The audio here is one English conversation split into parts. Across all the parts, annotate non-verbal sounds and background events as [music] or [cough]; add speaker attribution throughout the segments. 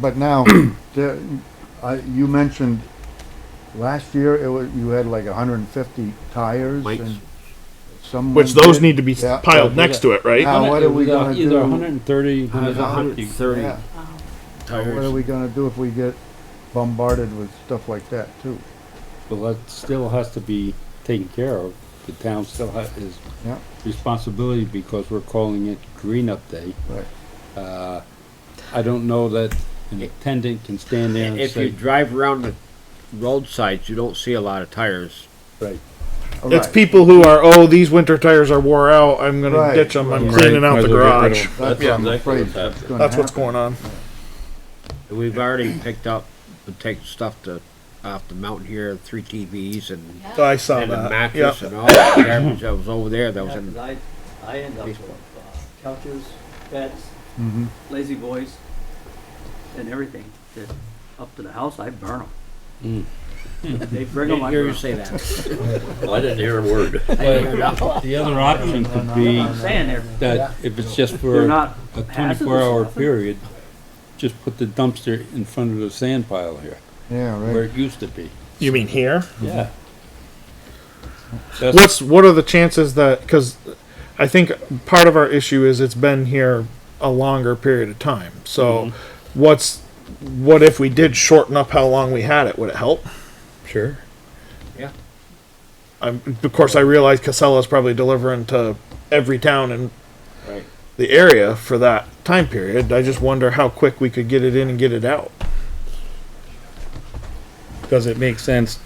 Speaker 1: but now, the- I- you mentioned last year, it was, you had like hundred and fifty tires
Speaker 2: Mikes.
Speaker 1: and some.
Speaker 3: Which
Speaker 1: went
Speaker 3: those
Speaker 1: in.
Speaker 3: need to be s-
Speaker 1: Yeah.
Speaker 3: piled next to it, right?
Speaker 1: Now, what are we
Speaker 4: It was, uh,
Speaker 1: gonna
Speaker 4: Either
Speaker 1: do?
Speaker 4: hundred and thirty,
Speaker 2: There's
Speaker 4: hundred
Speaker 2: a
Speaker 4: and
Speaker 2: hundred
Speaker 4: fifty
Speaker 2: and thirty
Speaker 1: Yeah. What are
Speaker 2: tires.
Speaker 1: we gonna do if we get bombarded with stuff like that too?
Speaker 4: Well, that still has to be taken care of. The town still has, is
Speaker 1: Yeah.
Speaker 4: responsibility because we're calling it Green Up Day.
Speaker 1: Right.
Speaker 4: Uh, I don't know that an attendant can stand there and
Speaker 2: If you
Speaker 4: say,
Speaker 2: drive around the roadsides, you don't see a lot of tires.
Speaker 4: right,
Speaker 1: All
Speaker 3: It's
Speaker 1: right.
Speaker 3: people who are, oh, these winter tires are wore out. I'm going
Speaker 1: Right.
Speaker 3: to ditch them. I'm
Speaker 1: Right.
Speaker 3: cleaning out
Speaker 5: Might
Speaker 3: the
Speaker 5: as well get rid
Speaker 3: garage.
Speaker 5: of 'em.
Speaker 1: That's what
Speaker 5: Yeah.
Speaker 1: I'm
Speaker 5: Exactly
Speaker 1: afraid
Speaker 5: what's happening.
Speaker 1: is gonna
Speaker 3: That's what's
Speaker 1: happen.
Speaker 3: going on.
Speaker 2: We've already picked up, and take stuff to, off the mountain here, three TVs and,
Speaker 3: I saw
Speaker 2: and a
Speaker 3: that. Yeah.
Speaker 2: mattress and all that garbage that was over there that was
Speaker 6: Yeah,
Speaker 2: in.
Speaker 6: 'cause I, I end up with uh, couches, beds,
Speaker 1: Mhm.
Speaker 6: lazy boys, and everything that up to the house, I burn
Speaker 4: Mm.
Speaker 6: them. They bring them,
Speaker 2: Didn't
Speaker 6: I
Speaker 2: hear
Speaker 6: burn
Speaker 2: you
Speaker 6: 'em.
Speaker 2: say that.
Speaker 5: I didn't hear a word.
Speaker 1: [laughs]
Speaker 4: the other option could be
Speaker 6: I'm saying they're,
Speaker 4: that if it's just
Speaker 6: they're
Speaker 4: for a
Speaker 6: not hazardous
Speaker 4: twenty-four
Speaker 6: or
Speaker 4: hour
Speaker 6: nothing.
Speaker 4: period, just put the dumpster in front of the sand pile here,
Speaker 1: Yeah,
Speaker 4: where
Speaker 1: right.
Speaker 4: it used to be.
Speaker 3: You mean here?
Speaker 4: Yeah. That's-
Speaker 3: What's what are the chances that because I think part of our issue is it's been here a longer period of time. So
Speaker 1: Mm-hmm.
Speaker 3: what's what if we did shorten up how long we had it? Would it help?
Speaker 5: Sure.
Speaker 3: i of course, I realize Casella's probably delivering to every town in
Speaker 4: Right.
Speaker 3: the area for that time period. I just wonder how quick we could get it in and get it out.
Speaker 5: Does it make sense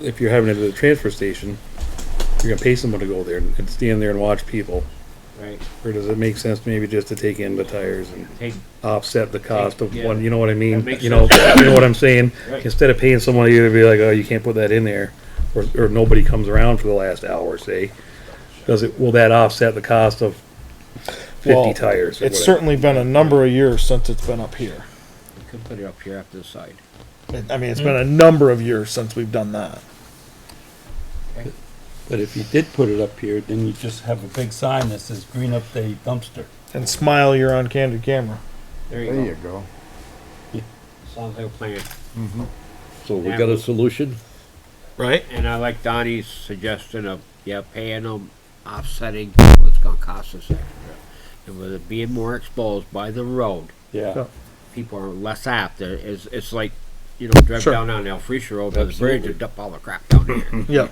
Speaker 5: if you're having it at a transfer station, you're gonna pay someone to go there and stand there and watch people?
Speaker 2: Right.
Speaker 5: Or does it make sense maybe just to take in the tires and
Speaker 2: Take,
Speaker 5: offset the cost of
Speaker 2: Yeah.
Speaker 5: one, you know what I mean?
Speaker 2: makes
Speaker 5: You know, you know what I'm saying?
Speaker 2: Right.
Speaker 5: Instead of paying someone either be like, oh, you can't put that in there, or, or nobody comes around for the last hour, say. Does it, will that offset the cost of fifty
Speaker 3: Well,
Speaker 5: tires or
Speaker 3: It's
Speaker 5: whatever?
Speaker 3: certainly been a number of years since it's been up here.
Speaker 2: you could put it up here up this side.
Speaker 3: I mean, it's been a number of years since we've done that.
Speaker 4: But if you did put it up here, then you just have a big sign that says Green Up Day Dumpster.
Speaker 3: And smile, you're on candid camera.
Speaker 2: There
Speaker 1: There you
Speaker 2: you
Speaker 1: go.
Speaker 2: go. Sounds like a plan.
Speaker 5: So we
Speaker 2: got a
Speaker 5: solution?
Speaker 3: Right?
Speaker 2: And I like Donnie's suggestion of, yeah, paying them, offsetting what it's gonna cost us extra. And with it being more exposed by the road,
Speaker 4: Yeah.
Speaker 2: people are less apt, There is, it's like, you know, drive
Speaker 3: Sure.
Speaker 2: down on El Freesia Road, to the bridge, and dump all the crap down
Speaker 3: [laughs]
Speaker 2: there.
Speaker 3: Yep.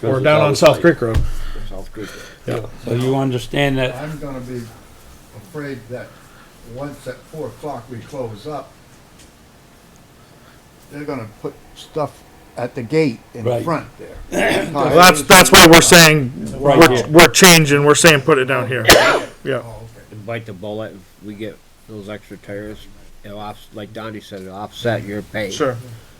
Speaker 3: Or down on South Creek Road.
Speaker 2: South Creek.
Speaker 4: So you understand that,
Speaker 1: I'm gonna be afraid that once at four o'clock we close up, they're gonna put stuff at the gate in
Speaker 4: Right.
Speaker 1: front there.
Speaker 4: [clears throat]
Speaker 3: Well, that's, that's why we're saying,
Speaker 4: Right
Speaker 3: we're,
Speaker 4: here.
Speaker 3: we're changing, we're saying put it down here. Yeah.
Speaker 1: Oh, okay.
Speaker 2: And Bite the bullet, if we get those extra tires, it'll off, like Donnie said, it'll offset your pay.
Speaker 3: Sure.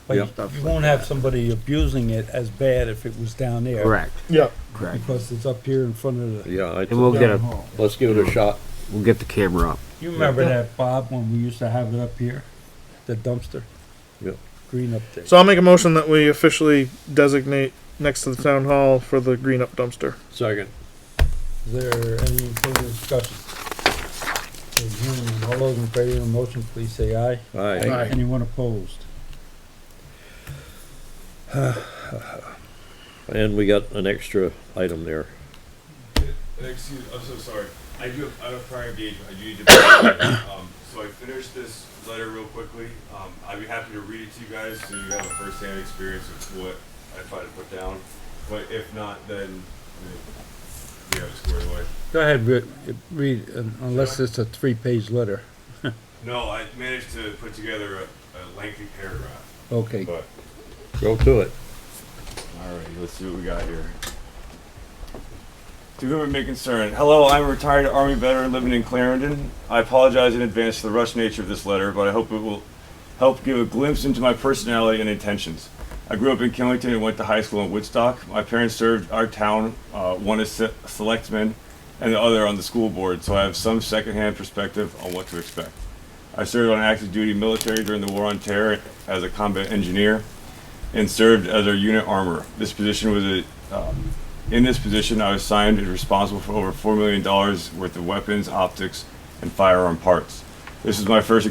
Speaker 4: but you
Speaker 2: Stuff
Speaker 4: you
Speaker 2: like
Speaker 4: won't have somebody abusing it as bad if it was down there.
Speaker 2: Correct,
Speaker 3: Yeah.
Speaker 2: correct.
Speaker 4: Because it's up here in front of the,
Speaker 5: Yeah,
Speaker 2: And we'll get a,
Speaker 1: Oh,
Speaker 5: let's give it a shot.
Speaker 2: we'll get the camera up.
Speaker 4: you remember that, Bob, when we used to have it up here? The dumpster?
Speaker 5: Yep.
Speaker 4: Green Up Day.
Speaker 3: So I'll make a motion that we officially designate next to the town hall for the green up dumpster.
Speaker 5: Second.
Speaker 4: Is there any further discussion? Hearing none, All those in favor of the motion, please say aye.
Speaker 3: Aye.
Speaker 4: Anyone opposed?
Speaker 5: And we got an extra item there.
Speaker 7: Excuse, I'm so sorry. I do have, I have prior engagement. I do need to. [coughs] um, so I finished this letter real quickly. Um, I'd be happy to read it to you guys so you have a first-hand experience of what I tried to put down. But if not, then we- we have it squared away.
Speaker 4: Go ahead, re- read, un- unless it's a three-page letter.
Speaker 7: No, I managed to put together a, a lengthy paragraph,
Speaker 4: Okay,
Speaker 7: but
Speaker 5: Go to it.
Speaker 7: All right, let's see what we got here. To whom it may concern, hello, I'm a retired Army veteran living in Clarendon. I apologize in advance for the rushed nature of this letter, but I hope it will help give a glimpse into my personality and intentions. I grew up in Killington and went to high school in Woodstock. My parents served our town, uh, one as se- selectman and the other on the school board, so I have some secondhand perspective on what to expect. I served on active duty military during the War on Terror as a combat engineer and served as our unit armorer. This position was a, uh, in this position, I was signed and responsible for over $4 million worth of weapons, optics, and firearm parts. This is my first